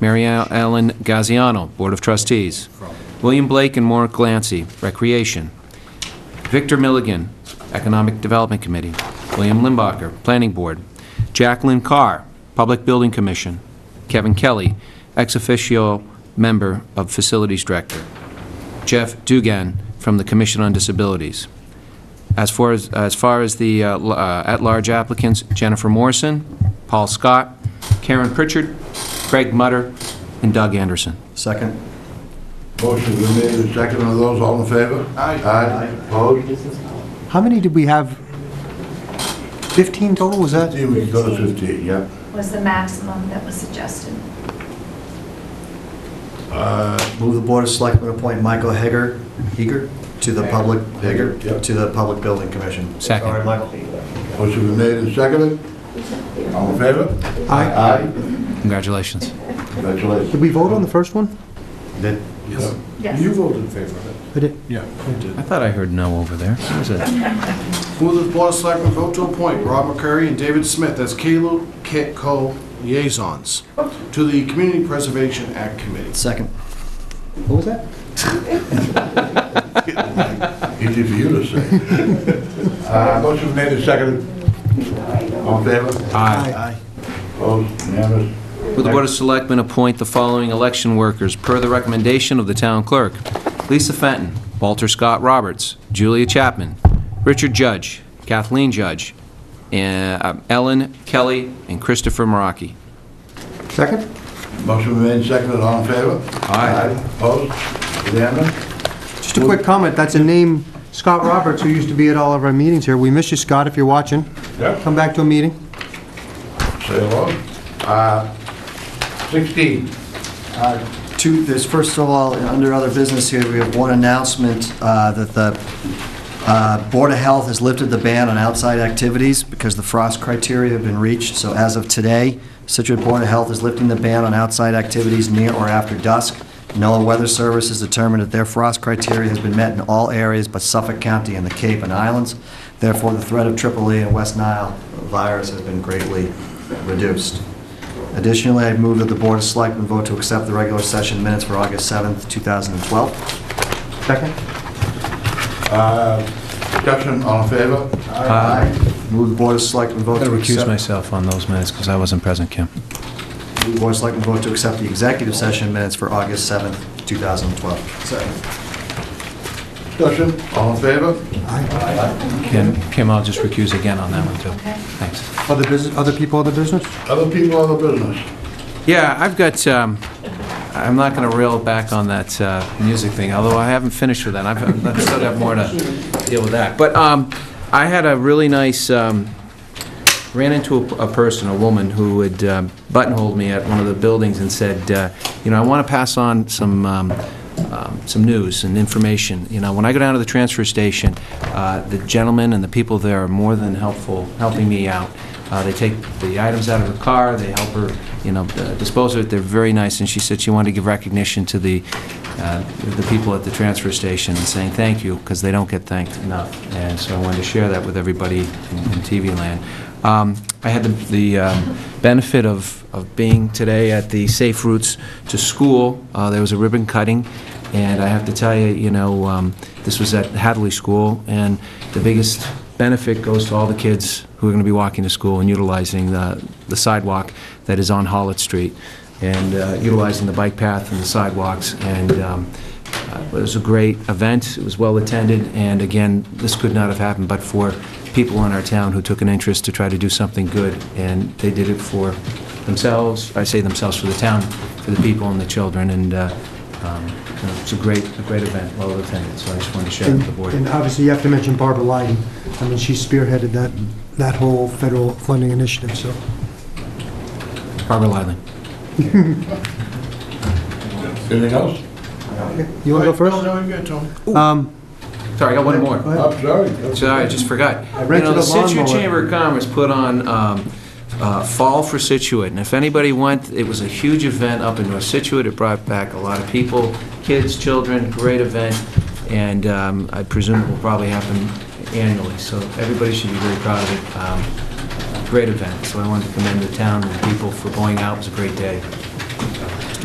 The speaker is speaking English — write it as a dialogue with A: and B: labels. A: Mary Ellen Gaziano, Board of Trustees. William Blake and Maura Glancy, Recreation. Victor Milligan, Economic Development Committee. William Limbacher, Planning Board. Jacqueline Carr, Public Building Commission. Kevin Kelly, ex officio member of Facilities Director. Jeff Dugan from the Commission on Disabilities. As far as, as far as the uh, l- uh, at-large applicants, Jennifer Morrison, Paul Scott, Karen Pritchard, Craig Mutter, and Doug Anderson.
B: Second.
C: Motion been made and seconded. Are those all in favor? Aye. Aye. Opposed?
B: How many did we have? 15 total, was that?
C: See, we can go to 15, yeah.
D: was the maximum that was suggested.
B: Move the Board of Selectmen appoint Michael Hager, Heger, to the Public, Hager,
C: yep.
B: to the Public Building Commission.
A: Second.
B: All right, Michael.
C: Motion been made and seconded. All in favor?
B: Aye.
C: Aye.
A: Congratulations.
C: Congratulations.
B: Did we vote on the first one?
C: Did-
E: Yes.
D: Yes.
E: You voted in favor of it.
B: I did.
E: Yeah, you did.
A: I thought I heard no over there. What was it?
E: Move that the Board of Selectmen vote to appoint Rob McCurry and David Smith as Kalo Kit Co. liaisons to the Community Preservation Act Committee.
B: Second. What was that?
C: Easy for you to say. Uh, Motion been made and seconded. All in favor?
A: Aye.
C: Opposed? Unanimous?
A: Will the Board of Selectmen appoint the following election workers per the recommendation of the town clerk? Lisa Fenton, Walter Scott Roberts, Julia Chapman, Richard Judge, Kathleen Judge, and, uh, Ellen Kelly, and Christopher Maraki.
B: Second?
C: Motion been made and seconded. All in favor?
A: Aye.
C: Opposed? Unanimous?
B: Just a quick comment, that's a name, Scott Roberts, who used to be at all of our meetings here. We miss you, Scott, if you're watching.
C: Yep.
B: Come back to a meeting.
C: Say hello. Uh, 16. Uh,
F: Two, there's first of all, under other business here, we have one announcement uh, that the uh, Board of Health has lifted the ban on outside activities because the frost criteria have been reached. So as of today, Situate Board of Health is lifting the ban on outside activities near or after dusk. NOAA Weather Service has determined that their frost criteria has been met in all areas but Suffolk County and the Cape and Islands. Therefore, the threat of AAA and West Nile virus has been greatly reduced. Additionally, I move that the Board of Selectmen vote to accept the regular session minutes for August 7th, 2012.
B: Second?
C: uh, Discussion, all in favor?
F: Move the Board of Selectmen vote
A: I'm
F: to
A: going to recuse
F: accept...
A: myself on those minutes because I wasn't present, Kim.
F: move the Board of Selectmen vote to accept the executive session minutes for August 7th, 2012.
C: Discussion, all in favor?
A: Kim, Kim, I'll just recuse again on that one, too.
D: Okay.
A: Thanks.
B: Other business, other people, other business?
C: Other people, other business?
A: Yeah, I've got, um, I'm not going to reel back on that uh, music thing, although I haven't finished with that. I've I still got more to deal with that. But um, I had a really nice, um, ran into a a person, a woman, who had um, buttonholed me at one of the buildings and said, uh, you know, I want to pass on some, um, um, some news and information. You know, when I go down to the transfer station, uh, the gentlemen and the people there are more than helpful, helping me out. Uh, They take the items out of her car, they help her, you know, uh, dispose of it, they're very nice, and she said she wanted to give recognition to the, uh, the people at the transfer station and saying thank you, because they don't get thanked enough. And so I wanted to share that with everybody in in TV land. Um, I had the the um, benefit of of being today at the Safe Routes to School. Uh, There was a ribbon cutting, and I have to tell you, you know, um, this was at Hadley School, and the biggest benefit goes to all the kids who are going to be walking to school and utilizing the the sidewalk that is on Hollitt Street, and uh, utilizing the bike path and the sidewalks. And um, uh, It was a great event, it was well-attended, and again, this could not have happened but for people in our town who took an interest to try to do something good, and they did it for themselves, I say themselves, for the town, for the people and the children, and uh, um, you know, it's a great, a great event, well-attended, so I just wanted to share it
B: And
A: with the board.
B: and obviously, you have to mention Barbara Lyden. I mean, she spearheaded that, that whole federal funding initiative, so.
A: Barbara Lively.
C: Anything else?
B: You want to go
E: No,
B: first?
E: no, you got it, Tony.
B: Um,
A: Sorry, I got one
B: go
A: more.
B: ahead.
C: I'm sorry.
A: Sorry, uh, I just forgot.
B: I rented
A: You know,
B: a
A: the Situate
B: lawnmower.
A: Chamber of Commerce put on um, uh, Fall for Situate, and if anybody went, it was a huge event up in North Situate. It brought back a lot of people, kids, children, great event, and um, I presume it will probably happen annually, so everybody should be very proud of it. Um, Great event, so I wanted to commend the town and the people for going out. It was a great day.